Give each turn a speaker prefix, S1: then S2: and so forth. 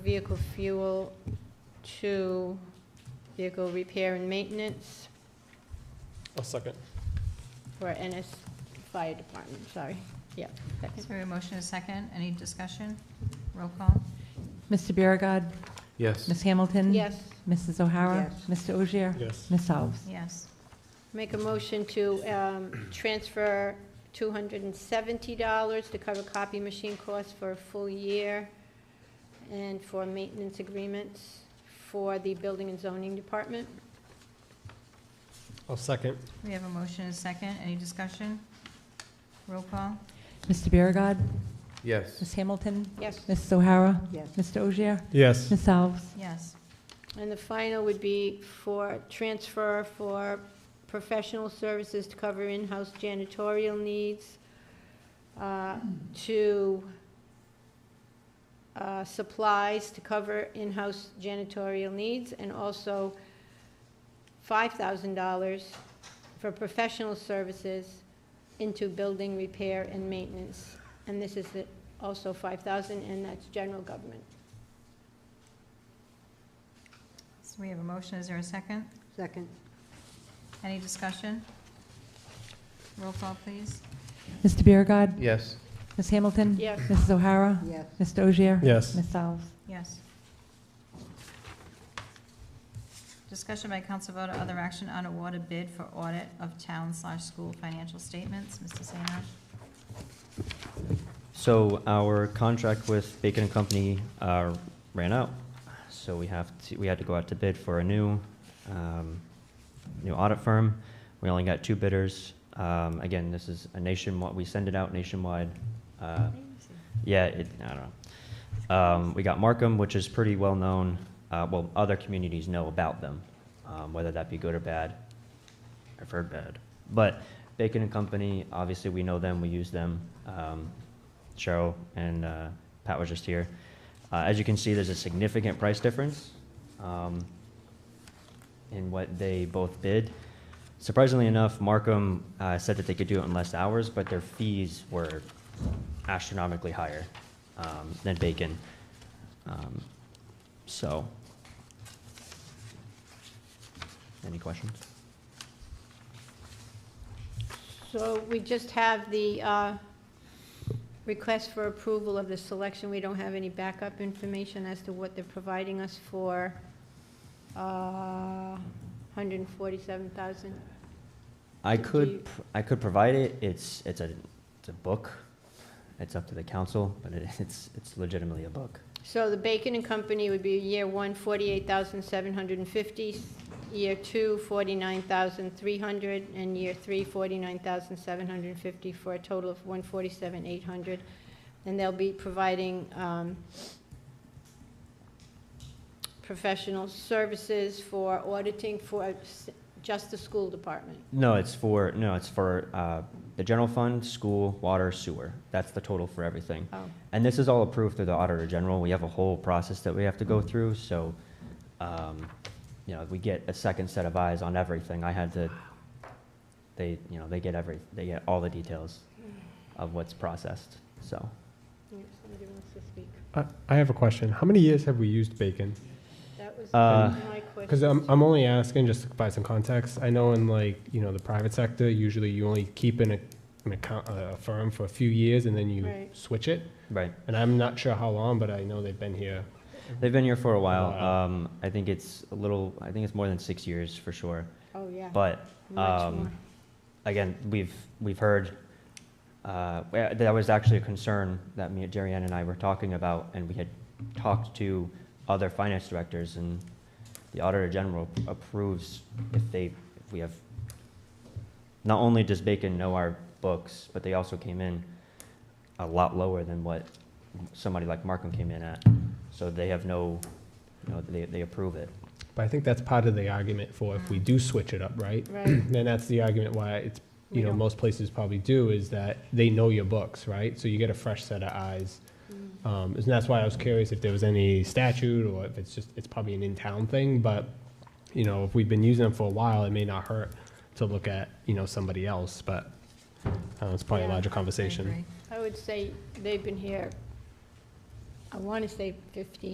S1: vehicle fuel to vehicle repair and maintenance
S2: I'll second.
S1: for NS Fire Department, sorry. Yeah, second.
S3: So we have a motion and a second. Any discussion? Roll call?
S4: Mr. Biragad.
S5: Yes.
S4: Ms. Hamilton.
S1: Yes,
S4: Mrs. O'Hara. Mr. Ogier.
S2: Yes.
S4: Ms. Alves.
S3: Yes.
S1: make a motion to um, transfer $270 to cover copy machine costs for a full year and for maintenance agreements for the Building and Zoning Department.
S2: I'll second.
S3: We have a motion and a second. Any discussion? Roll call?
S4: Mr. Biragad.
S5: Yes.
S4: Ms. Hamilton.
S1: Yes.
S4: Mrs. O'Hara.
S6: Yes.
S4: Mr. Ogier.
S2: Yes.
S4: Ms. Alves.
S3: Yes.
S1: And the final would be for transfer for professional services to cover in-house janitorial needs uh, to uh, supplies to cover in-house janitorial needs, and also $5,000 for professional services into building repair and maintenance. And this is the- also 5,000, and that's general government.
S3: So we have a motion. Is there a second?
S6: Second,
S3: Any discussion? Roll call, please.
S4: Mr. Biragad.
S5: Yes.
S4: Ms. Hamilton.
S1: Yes.
S4: Mrs. O'Hara.
S6: yes.
S4: Mr. Ogier.
S2: Yes.
S4: Ms. Alves.
S3: Yes. Discussion by council vote or other action on award a bid for audit of town slash school financial statements. Mr. Sainoff?
S7: So our contract with Bacon and Company uh, ran out, so we have to, we had to go out to bid for a new, um, new audit firm. We only got two bidders. Um, Again, this is a nationwide, we send it out nationwide. Uh, Yeah, it, I don't know. Um, We got Markham, which is pretty well-known, Uh, well, other communities know about them, um, whether that be good or bad. I've heard bad. But Bacon and Company, obviously, we know them, we use them. Um, Cheryl and uh, Pat was just here. Uh, As you can see, there's a significant price difference um, in what they both bid. Surprisingly enough, Markham uh, said that they could do it in less hours, but their fees were astronomically higher um, than Bacon. Um, So, any questions?
S1: So we just have the uh, request for approval of the selection. We don't have any backup information as to what they're providing us for uh, 147,000. Do- do
S7: I
S1: you-
S7: could, pr- I could provide it, it's, it's a, it's a book, it's up to the council, but it- it's, it's legitimately a book.
S1: So the Bacon and Company would be year one, 48,750, year two, 49,300, and year three, 49,750, for a total of 147,800. And they'll be providing um, professional services for auditing for s- just the school department.
S7: No, it's for, no, it's for, uh, the general fund, school, water, sewer, that's the total for everything.
S1: Oh,
S7: And this is all approved through the Auditor General. We have a whole process that we have to go through, so, um, you know, we get a second set of eyes on everything. I had to, they, you know, they get every, they get all the details of what's processed, so.
S1: yes, somebody wants to speak.
S2: I, I have a question. How many years have we used bacon?
S1: That was
S7: Uh,
S1: my question.
S2: Because I'm, I'm only asking just to provide some context. I know in like, you know, the private sector, usually you only keep an, ac- an account, a firm for a few years and then you
S1: Right.
S2: switch it.
S7: Right.
S2: And I'm not sure how long, but I know they've been here.
S7: They've been here for a while.
S2: Wow.
S7: Um, I think it's a little, I think it's more than six years for sure.
S1: Oh, yeah.
S7: But
S1: much more.
S7: Um, Again, we've, we've heard, uh, where- that was actually a concern that me, Jerry Ann and I were talking about, and we had talked to other finance directors, and the Auditor General approves if they, if we have, not only does Bacon know our books, but they also came in a lot lower than what somebody like Markham came in at. So they have no, you know, they, they approve it.
S2: But I think that's part of the argument for if we do switch it up, right?
S1: Right.
S2: Then that's the argument why it's,
S1: We
S2: you know,
S1: don't-
S2: most places probably do is that they know your books, right? So you get a fresh set of eyes.
S1: Mm.
S2: Um, and that's why I was curious if there was any statute or if it's just, it's probably an in-town thing, but, you know, if we've been using them for a while, it may not hurt to look at, you know, somebody else, but, uh, it's probably a
S1: Yeah,
S2: larger
S3: I
S2: conversation.
S3: agree.
S1: I would say they've been here, I want to say 15